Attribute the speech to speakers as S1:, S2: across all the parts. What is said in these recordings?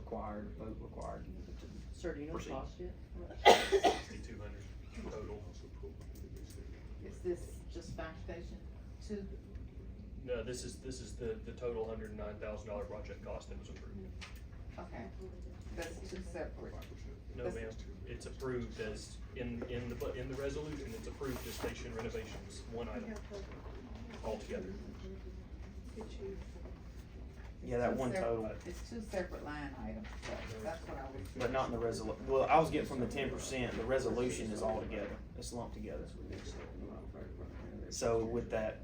S1: required, vote required.
S2: Sir, do you know the
S1: Proceed.
S2: cost yet?
S3: sixty-two hundred total.
S4: Is this just fire station two?
S3: No, this is, this is the, the total hundred and nine thousand dollar project cost that was approved.
S4: Okay, that's two separate.
S3: No,
S4: That's-
S3: ma'am, it's approved as, in, in the, bu- in the resolution, it's approved as station renovations, one item, altogether.
S1: Yeah, that
S4: Two
S1: one
S4: separ-
S1: total,
S4: It's two separate line items, so that's what I was.
S1: but not in the resol, well, I was getting from the ten percent, the resolution is all together, it's lumped together. So with that,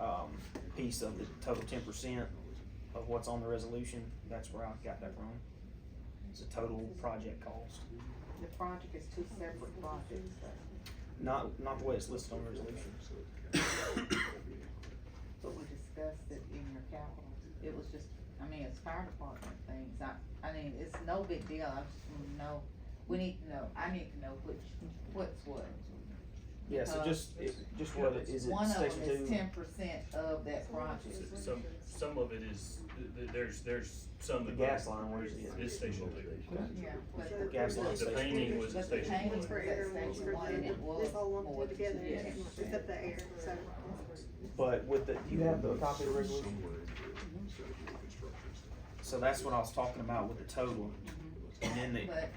S1: um, piece of the total ten percent of what's on the resolution, that's where I got that from. It's a total project cost,
S4: The project is two separate projects, so.
S1: not, not the way it's listed on the resolution.
S4: But we discussed it in your capital, it was just, I mean, it's fire department things, I, I mean, it's no big deal, I just wanna know, we need to know, I need to know which, what's what.
S1: Yeah, so
S4: Uh,
S1: just, it, just what, it- is it
S4: One of
S1: section
S4: them
S1: two?
S4: is ten percent of that project,
S3: S- Some, some of it is, th- th- there's, there's some
S1: The
S3: that.
S1: gas line, where's the-
S3: Is station two.
S4: yeah, but
S5: The
S4: the.
S1: gas line
S3: The
S1: station.
S3: painting was the
S4: But the
S3: station
S4: painting
S3: one.
S4: was at station one and it was.
S5: It's all
S4: more
S5: lumped
S4: than
S5: together,
S4: 10%.
S5: except the air, so.
S1: But with the, do you have the copy of the resolution? So that's what I was talking about with the total, and then the,
S4: But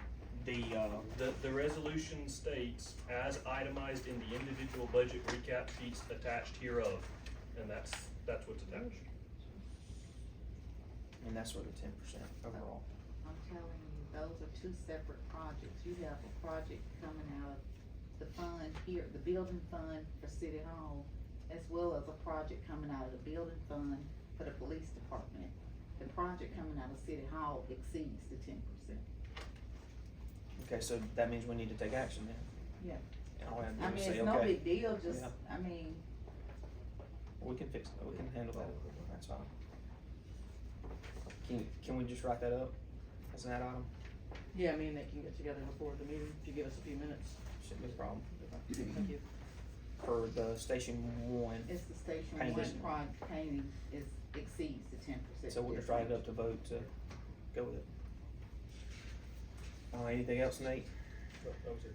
S1: the, uh,
S3: The, the resolution states, as itemized in the individual budget recap sheets attached hereof, and that's, that's what's attached.
S1: and that's where the ten percent overall.
S4: I'm telling you, those are two separate projects. You have a project coming out of the fund here, the building fund for City Hall, as well as a project coming out of the building fund for the police department. The project coming out of City Hall exceeds the ten percent.
S1: Okay, so that means we need to take action then?
S4: Yeah.
S1: And all I
S4: I
S1: have to
S4: mean,
S1: do is say,
S4: it's no
S1: okay,
S4: big deal, just,
S1: Yeah.
S4: I mean,
S1: we can fix, we can handle that, that's fine. Can, can we just write that up as an add item?
S2: Yeah, me and Nick can get together before the meeting, if you give us a few minutes.
S1: Shouldn't be a problem.
S2: Thank you.
S1: For the station one,
S4: it's the station
S1: Painting.
S4: one project painting is, exceeds the ten percent.
S1: so we'll just write it up to vote to go with it. Uh, anything else, Nate?
S3: Oh, I'm sorry.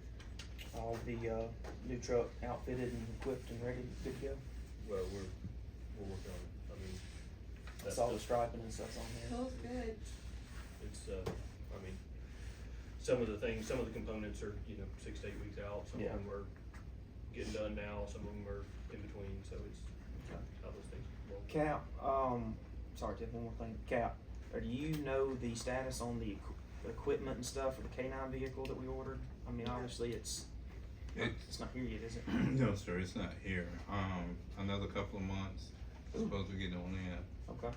S1: All the, uh, new truck outfitted and equipped and ready, good to go?
S3: Well, we're, we're working on it, I mean.
S1: That's all the striping and stuff's on there.
S5: Feels good.
S3: It's, uh, I mean, some of the things, some of the components are, you know, six to eight weeks out, some of
S1: Yeah.
S3: them are getting done now, some of them are in between, so it's how those things. roll.
S1: Cap, um, sorry, Tiff, one more thing. Cap, or do you know the status on the equ- equipment and stuff for the K nine vehicle that we ordered? I mean, obviously, it's,
S6: It-
S1: it's not here yet, is it?
S6: No, sir, it's not here. Um, another couple of months, it's supposed to get on in.
S1: Okay.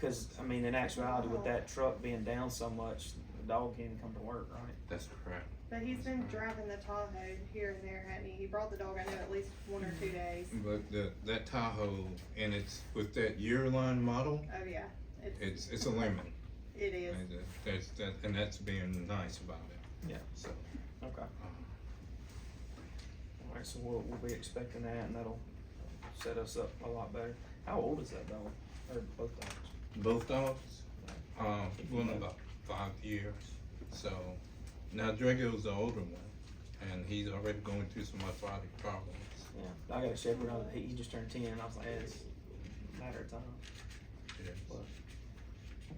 S1: Cause, I mean, in actuality, with that truck being down so much, the dog can't even come to work, right?
S6: That's correct.
S5: But he's been driving the Tahoe here and there, hadn't he? He brought the dog, I know, at least one or two days.
S6: But the, that Tahoe, and it's with that year-line model,
S5: Oh, yeah, it's,
S6: it's, it's a lemon.
S5: it is.
S6: And that- That's, that, and that's being nice about it.
S1: Yeah.
S6: So,
S1: Okay.
S6: um,
S1: Alright, so we'll, we'll be expecting that and that'll set us up a lot better. How old is that dog? Or both dogs?
S6: both dogs, um, one about five years. So, now Drago's the older one, and he's already going through some orthotic problems.
S1: Yeah. I got a shepherd, I, he he just turned ten, and I was like, "Eh, it's a matter of time.
S6: Yes.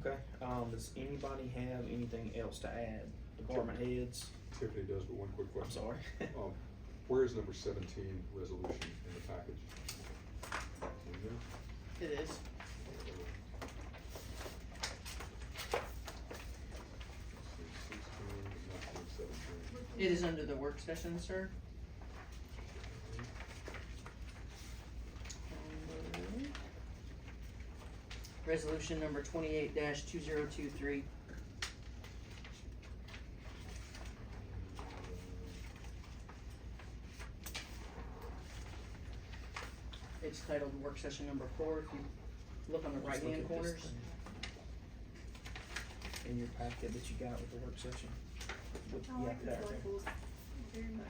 S1: Okay, um, does anybody have anything else to add? Department heads,
S7: Tiffany does, but one quick
S1: I'm
S7: question.
S1: sorry.
S7: Um, Where is number seventeen resolution in the package? In there?
S2: It is.
S7: Sixteen, not number 17.
S2: It is under the work session, sir. Resolution number twenty-eight two zero two three. It's titled work session number four, if you look on the
S1: Let's look
S2: right-hand
S1: at this
S2: corners.
S1: thing. In your packet that you got with the work session. With-
S5: Oh, I
S1: yeah,
S5: like the
S1: that right
S5: circles very much.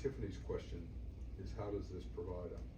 S7: Tiffany's question is how does this provide a